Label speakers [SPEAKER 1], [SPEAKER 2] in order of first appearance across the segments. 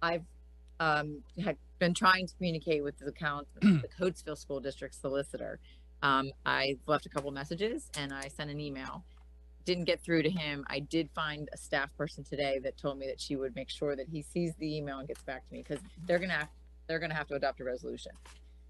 [SPEAKER 1] I've um, had been trying to communicate with the count, the Coatesville School District solicitor. Um, I left a couple messages and I sent an email. Didn't get through to him. I did find a staff person today that told me that she would make sure that he sees the email and gets back to me because they're gonna, have- they're gonna have to adopt a resolution.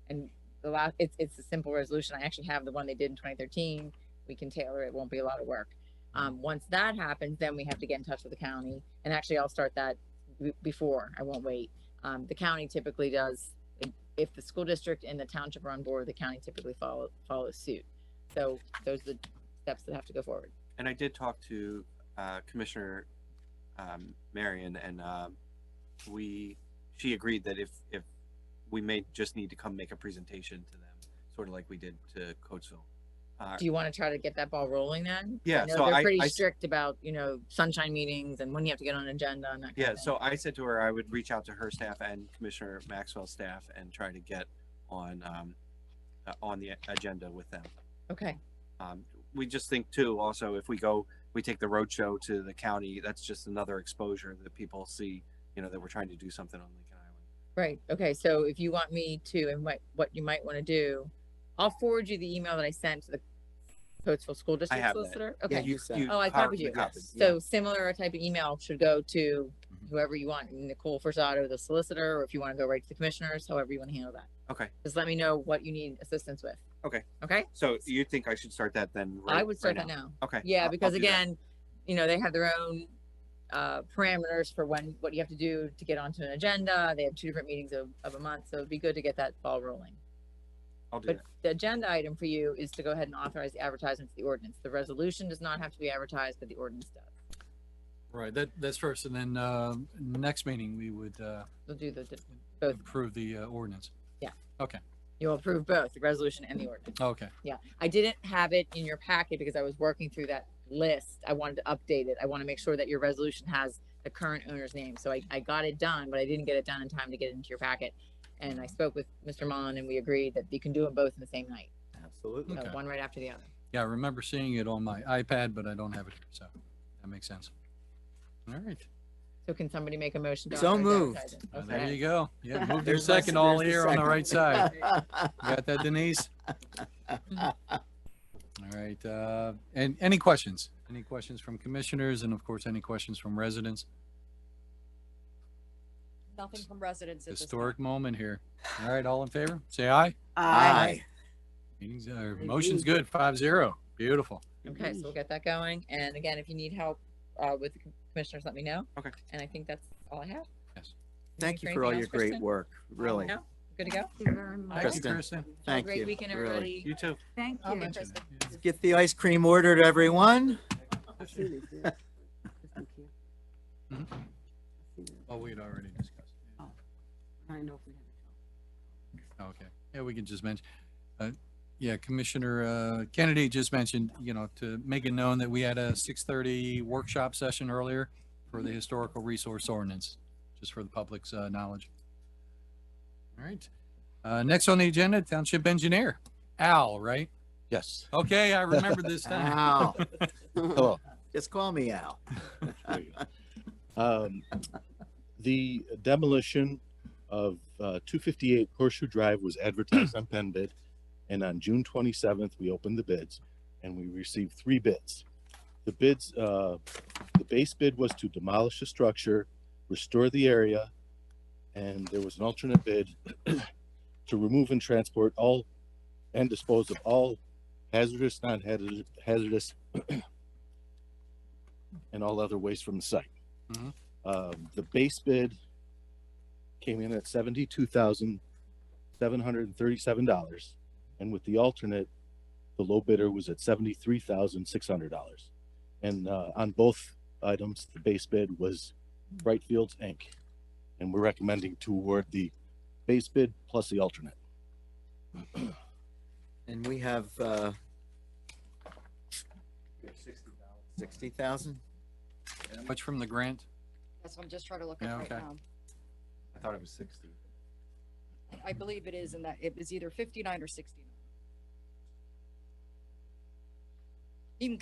[SPEAKER 1] And the last, it's, it's a simple resolution. I actually have the one they did in twenty thirteen. We can tailor it. Won't be a lot of work. Um, once that happens, then we have to get in touch with the county. And actually, I'll start that b- before, I won't wait. Um, the county typically does, if- if the school district and the township are on board, the county typically follow, follows suit. So those are the steps that have to go forward.
[SPEAKER 2] And I did talk to uh, Commissioner um, Marion, and um, we she agreed that if if we may just need to come make a presentation to them, sort of like we did to Coatesville. Uh,
[SPEAKER 1] Do you want to try to get that ball rolling then?
[SPEAKER 2] Yeah,
[SPEAKER 1] I know
[SPEAKER 2] so
[SPEAKER 1] they're
[SPEAKER 2] I-
[SPEAKER 1] Pretty
[SPEAKER 2] I s-
[SPEAKER 1] strict about, you know, sunshine meetings and when you have to get on an agenda and that kind
[SPEAKER 2] yeah,
[SPEAKER 1] of thing.
[SPEAKER 2] so I said to her I would reach out to her staff and Commissioner Maxwell's staff and try to get on um, uh, on the agenda with them.
[SPEAKER 1] Okay,
[SPEAKER 2] Um, we just think too, also, if we go, we take the roadshow to the county, that's just another exposure that people see, you know, that we're trying to do something on Lincoln Island.
[SPEAKER 1] right. Okay, so if you want me to, and what, what you might want to do, I'll forward you the email that I sent to the Coatesville School District
[SPEAKER 2] have that.
[SPEAKER 1] solicitor.
[SPEAKER 3] Yeah,
[SPEAKER 1] Okay.
[SPEAKER 3] you said.
[SPEAKER 1] Oh, I
[SPEAKER 2] cop-
[SPEAKER 1] copied you.
[SPEAKER 2] copied, yeah.
[SPEAKER 1] So similar type of email should go to
[SPEAKER 2] Mhm.
[SPEAKER 1] whoever you want, Nicole Forsato, the solicitor, or if you want to go right to the commissioners, however you want to handle that.
[SPEAKER 2] Okay,
[SPEAKER 1] Just let me know what you need assistance with.
[SPEAKER 2] Okay.
[SPEAKER 1] Okay,
[SPEAKER 2] so you think I should start that then?
[SPEAKER 1] I
[SPEAKER 2] right-
[SPEAKER 1] would start
[SPEAKER 2] right
[SPEAKER 1] that now.
[SPEAKER 2] Okay. I'll-
[SPEAKER 1] Yeah,
[SPEAKER 2] I'll
[SPEAKER 1] because
[SPEAKER 2] do that.
[SPEAKER 1] again, you know, they have their own uh, parameters for when, what you have to do to get onto an agenda. They have two different meetings of, of a month, so it'd be good to get that ball rolling.
[SPEAKER 2] I'll do
[SPEAKER 1] But
[SPEAKER 2] that.
[SPEAKER 1] the agenda item for you is to go ahead and authorize the advertisement for the ordinance. The resolution does not have to be advertised, but the ordinance does.
[SPEAKER 4] Right, that, that's first, and then, uh, next meeting, we would, uh,
[SPEAKER 1] We'll do the, the- both.
[SPEAKER 4] approve the uh, ordinance.
[SPEAKER 1] You'll approve both the resolution and the ordinance.
[SPEAKER 4] Oh, Okay,
[SPEAKER 1] I didn't have it in your packet because I was working through that list. I wanted to update it. I want to make sure that your resolution has the current owner's name. So I, I got it done, but I didn't get it done in time to get it into your packet. And I spoke with Mr. Mullen and we agreed that you can do them both in the same night,
[SPEAKER 3] Absolutely.
[SPEAKER 1] So
[SPEAKER 4] Okay.
[SPEAKER 1] one right after the other.
[SPEAKER 4] yeah, I remember seeing it on my iPad, but I don't have it, here, so that makes sense. All right,
[SPEAKER 1] So can somebody make a motion? to
[SPEAKER 3] So
[SPEAKER 1] authorize
[SPEAKER 3] moved. Oh,
[SPEAKER 1] advertising?
[SPEAKER 4] Well, there
[SPEAKER 1] Okay.
[SPEAKER 4] you go. Yeah, move your
[SPEAKER 3] There's my-
[SPEAKER 4] second all
[SPEAKER 3] there's the
[SPEAKER 4] here on the right side. You
[SPEAKER 3] second.
[SPEAKER 4] Got that Denise? All right, uh, and any questions? Any questions from commissioners and of course, any questions from residents?
[SPEAKER 5] Nothing from residents at this time.
[SPEAKER 4] Historic moment here. All right, all in favor? Say aye.
[SPEAKER 3] Aye.
[SPEAKER 4] Meetings, uh, motion's good, five zero. Beautiful.
[SPEAKER 1] Okay, so we'll get that going. And again, if you need help, uh, with the commissioners, let me know.
[SPEAKER 2] Okay.
[SPEAKER 1] And I think that's all I have.
[SPEAKER 4] Yes.
[SPEAKER 3] Thank you for all your great
[SPEAKER 1] work.
[SPEAKER 3] work, really.
[SPEAKER 1] Oh, No? Good to go?
[SPEAKER 6] Thank you very much.
[SPEAKER 4] Thank you,
[SPEAKER 3] Kristen.
[SPEAKER 4] Kristen.
[SPEAKER 1] Have a
[SPEAKER 3] Thank you.
[SPEAKER 1] great weekend,
[SPEAKER 3] really.
[SPEAKER 1] everybody.
[SPEAKER 2] You too.
[SPEAKER 6] Thank
[SPEAKER 4] I'll
[SPEAKER 6] you.
[SPEAKER 4] mention it, yeah.
[SPEAKER 3] Get the ice cream ordered, everyone.
[SPEAKER 4] Mm-hmm. Oh, we'd already discussed. it.
[SPEAKER 6] Oh,
[SPEAKER 4] Oh, Okay, yeah, we can just mention, uh, yeah, Commissioner, uh, Kennedy just mentioned, you know, to make it known that we had a six thirty workshop session earlier for the historical resource ordinance, just for the public's, uh, knowledge. All right, uh, next on the agenda, Township Engineer, Al, right?
[SPEAKER 7] Yes,
[SPEAKER 4] Okay, I remember this time.
[SPEAKER 3] Al.
[SPEAKER 7] hello.
[SPEAKER 3] Just call me Al.
[SPEAKER 7] Um, The demolition of uh, 258 Horseshoe Drive was advertised on Penn Bid, and on June 27th, we opened the bids, and we received three bids. The bids, uh, the base bid was to demolish the structure, restore the area, and there was an alternate bid to remove and transport all and dispose of all hazardous, non-hazardous, hazardous, and all other waste from the site.
[SPEAKER 4] Mhm.
[SPEAKER 7] Um, the base bid came in at seventy-two thousand, seven hundred and thirty-seven dollars. And with the alternate, the low bidder was at seventy-three thousand, six hundred dollars. And, uh, on both items, the base bid was Bright Fields Inc. And we're recommending to award the base bid plus the alternate.
[SPEAKER 3] And we have, uh, sixty thousand?
[SPEAKER 4] Much from the grant?
[SPEAKER 5] That's what I'm just trying to look
[SPEAKER 4] Yeah,
[SPEAKER 5] up right
[SPEAKER 4] okay.
[SPEAKER 5] now.
[SPEAKER 2] I thought it was sixty.
[SPEAKER 5] I- I believe it is in that, it was either fifty-nine or sixty-nine.